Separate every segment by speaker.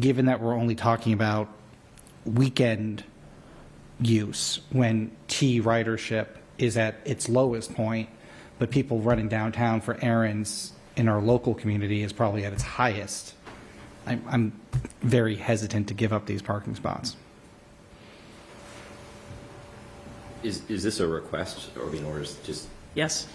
Speaker 1: given that we're only talking about weekend use when T ridership is at its lowest point, but people running downtown for errands in our local community is probably at its highest. I'm, I'm very hesitant to give up these parking spots.
Speaker 2: Is, is this a request or being orders just,
Speaker 3: Yes.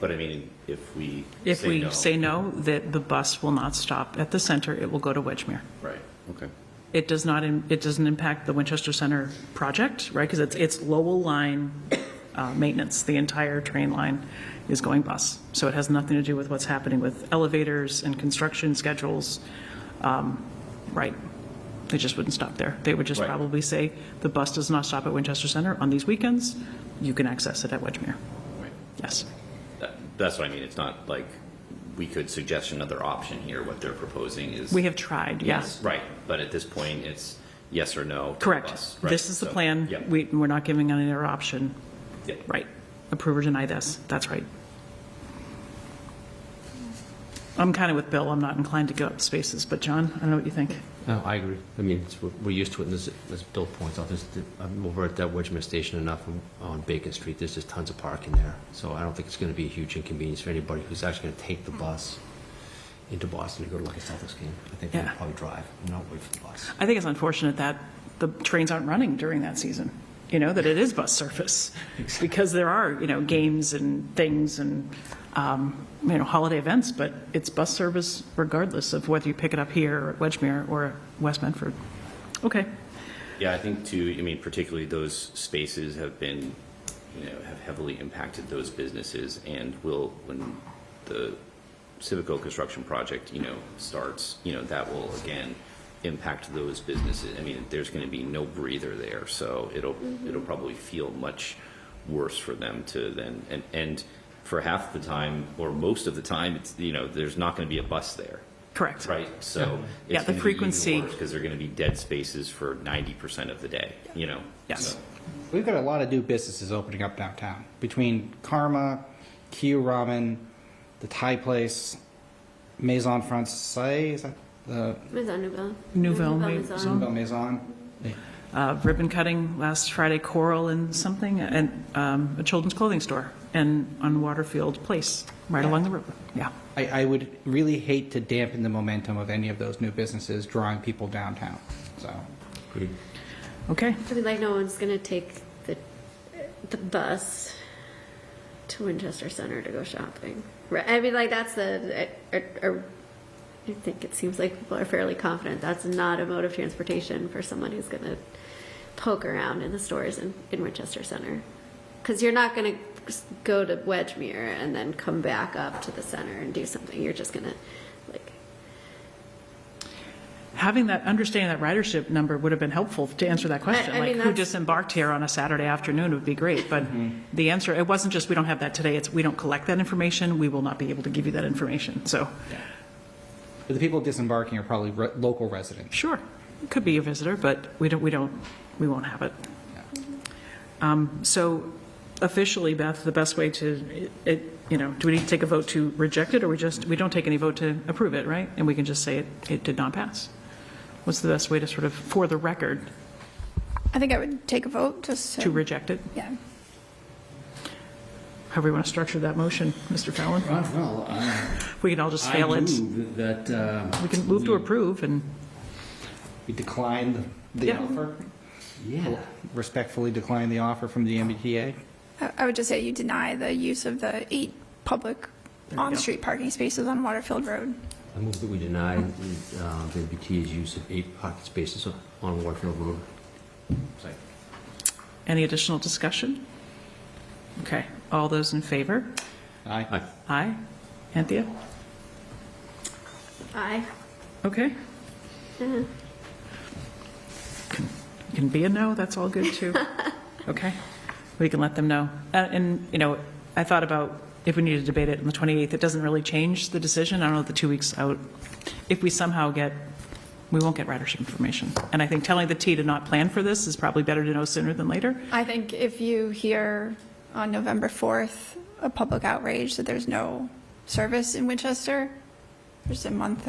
Speaker 2: but I mean, if we
Speaker 3: If
Speaker 2: say
Speaker 3: we
Speaker 2: no-
Speaker 3: say no, that the bus will not stop at the center, it will go to Wedgemere.
Speaker 2: Right, okay.
Speaker 3: It does not, im- it doesn't impact the Winchester Center project, right? Because it's, it's Lowell line uh, maintenance. The entire train line is going bus. So it has nothing to do with what's happening with elevators and construction schedules. Um, Right. They just wouldn't stop there. They would just
Speaker 2: Right.
Speaker 3: probably say, the bus does not stop at Winchester Center on these weekends. You can access it at Wedgemere.
Speaker 2: Right.
Speaker 3: Yes.
Speaker 2: That, that's what I mean, it's not like we could suggest another option here, what they're proposing is.
Speaker 3: We have tried, yes.
Speaker 2: Right, but at this point, it's yes or no. to
Speaker 3: Correct.
Speaker 2: us, right?
Speaker 3: This is the
Speaker 2: So,
Speaker 3: plan.
Speaker 2: Yeah.
Speaker 3: We, we're not giving any other option.
Speaker 2: yeah.
Speaker 3: Right. Approve or deny this. That's right. I'm kind of with Bill. I'm not inclined to give up spaces, but John, I don't know what you think.
Speaker 4: No, I agree. I mean, it's, we're- we're used to it, and this, as Bill points out, this, I'm over at that Wedgmere Station enough on- on Bacon Street, there's just tons of parking there. So I don't think it's gonna be a huge inconvenience for anybody who's actually gonna take the bus into Boston to go to like a Celtics game. I think
Speaker 3: Yeah.
Speaker 4: they'd probably drive, and not wait for the bus.
Speaker 3: I think it's unfortunate that the trains aren't running during that season, you know, that it is bus service. Because there are, you know, games and things and, um, you know, holiday events, but it's bus service regardless of whether you pick it up here or at Wedgemere or West Medford. Okay.
Speaker 2: Yeah, I think too, I mean, particularly those spaces have been, you know, have heavily impacted those businesses and will, when the Civico construction project, you know, starts, you know, that will again impact those businesses. I mean, there's going to be no breather there, so it'll, it'll probably feel much worse for them to then, and, and for half the time or most of the time, it's, you know, there's not going to be a bus there.
Speaker 3: Correct.
Speaker 2: Right, so.
Speaker 3: Yeah, the frequency-
Speaker 2: Because they're going to be dead spaces for ninety percent of the day, you know?
Speaker 3: Yes.
Speaker 2: so.
Speaker 1: We've got a lot of new businesses opening up downtown between Karma, Q Ramen, the Thai place, Maison Francais, is that the
Speaker 5: What is that, Nouvelle?
Speaker 3: Nouvelle
Speaker 5: Maison.
Speaker 3: Maison.
Speaker 1: Maison?
Speaker 3: uh, ribbon cutting last Friday, Coral and something, and um, a children's clothing store, and on Waterfield Place, right along the river. Yeah.
Speaker 1: I, I would really hate to dampen the momentum of any of those new businesses drawing people downtown. So
Speaker 4: Agreed.
Speaker 3: Okay.
Speaker 5: I mean, like, no one's gonna take the, the bus to Winchester Center to go shopping. Right, I mean, like, that's the, I, I- I think it seems like people are fairly confident that's not a mode of transportation for someone who's gonna poke around in the stores in, in Winchester Center. Cause you're not gonna s- go to Wedgmere and then come back up to the center and do something. You're just gonna, like,
Speaker 3: Having that, understanding that ridership number would have been helpful to answer that question.
Speaker 5: I- I mean,
Speaker 3: Like, who
Speaker 5: that's-
Speaker 3: disembarked here on a Saturday afternoon would be great, but the answer, it wasn't just, we don't have that today, it's, we don't collect that information, we will not be able to give you that information, so,
Speaker 1: but the people disembarking are probably re- local residents.
Speaker 3: sure, it could be a visitor, but we don't, we don't, we won't have it. Um, So officially, Beth, the best way to, it, you know, do we need to take a vote to reject it, or we just, we don't take any vote to approve it, right? And we can just say it, it did not pass? What's the best way to sort of, for the record,
Speaker 6: I think I would take a vote, just
Speaker 3: to
Speaker 6: so,
Speaker 3: reject it?
Speaker 6: yeah.
Speaker 3: However you want to structure that motion, Mr. Fallon?
Speaker 7: Right, well, I
Speaker 3: We can all just fail
Speaker 7: I
Speaker 3: it.
Speaker 7: move that, uh,
Speaker 3: We can move to approve, and
Speaker 1: We declined the, the
Speaker 3: Yeah.
Speaker 1: offer,
Speaker 7: yeah,
Speaker 1: respectfully declined the offer from the MBTA.
Speaker 6: I I would just say you deny the use of the eight public on-street parking spaces on Waterfield Road.
Speaker 4: I move that we deny, uh, the MBT's use of eight parking spaces on- on Warfield Road. Second.
Speaker 3: any additional discussion? Okay, all those in favor?
Speaker 1: Aye.
Speaker 4: Aye.
Speaker 3: Aye. Anthea?
Speaker 5: I,
Speaker 3: Okay. Can- Can be a no, that's all good, too. Okay, we can let them know. Uh, And, you know, I thought about if we need to debate it on the 28th, it doesn't really change the decision, I don't know, the two weeks out. If we somehow get, we won't get ridership information. And I think telling the T to not plan for this is probably better to know sooner than later.
Speaker 6: I think if you hear on November 4th, a public outrage that there's no service in Winchester, there's a month